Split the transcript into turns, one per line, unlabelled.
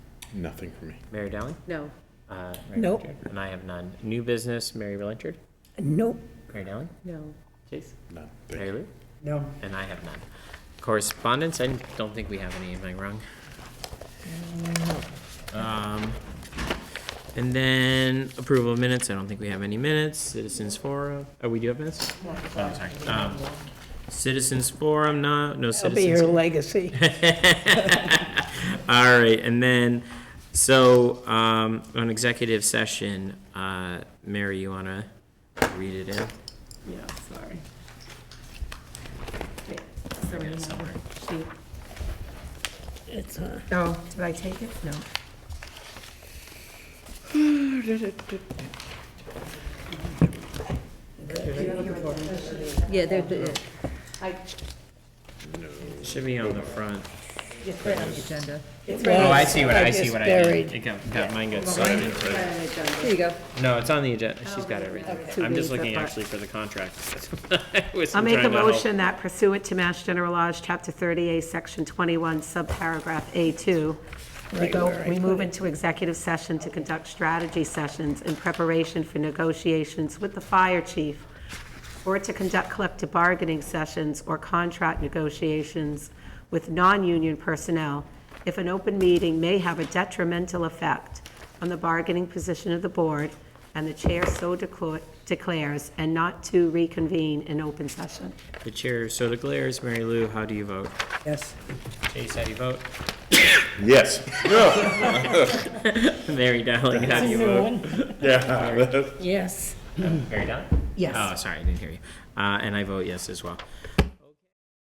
Nothing for me.
Mary Dowling?
No.
Uh, Mary
Nope.
Blanchard? And I have none. New business, Mary Blanchard?
Nope.
Mary Dowling?
No.
Chase?
None. Thank
Mary
you.
Lou?
No.
And I have none. Correspondence, I don't think we have any, am I wrong? Um, And then approval of minutes, I don't think we have any minutes, citizens forum, oh, we do have minutes? Oh, I'm sorry. Um, Citizens forum, no, no
That'll be her
citizens.
legacy.
All right, and then, so, um, on executive session, uh, Mary, you wanna read it in?
Yeah, sorry.
got it somewhere.
It's, uh,
Oh, did I take it? No. Yeah, they're, they're-
Should be on the front.
it's right on the agenda.
Oh, I see what, I see
just
what I
buried.
did. It got, got, mine got sorted.
There you go.
No, it's on the agenda, she's got everything.
Oh, Two
I'm
days,
just
that
looking
part.
actually for the contract. I was
I'll make a
trying to help.
motion that pursuant to Mass General Laws, Chapter 30A, Section 21, subparagraph A2, we
Right
go,
where I
we
put
move into executive session to conduct strategy sessions in preparation for negotiations with the fire chief, or to conduct collective bargaining sessions or contract negotiations with non-union personnel if an open meeting may have a detrimental effect on the bargaining position of the board and the chair so declo- declares, and not to reconvene in open session.
The chair so declares, Mary Lou, how do you vote?
Yes.
Chase, how do you vote?
Yes.
Mary Dowling, how do you vote?
Yeah.
Yes.
Mary Dowling?
Yes.
Oh, sorry, I didn't hear you. Uh, and I vote yes as well.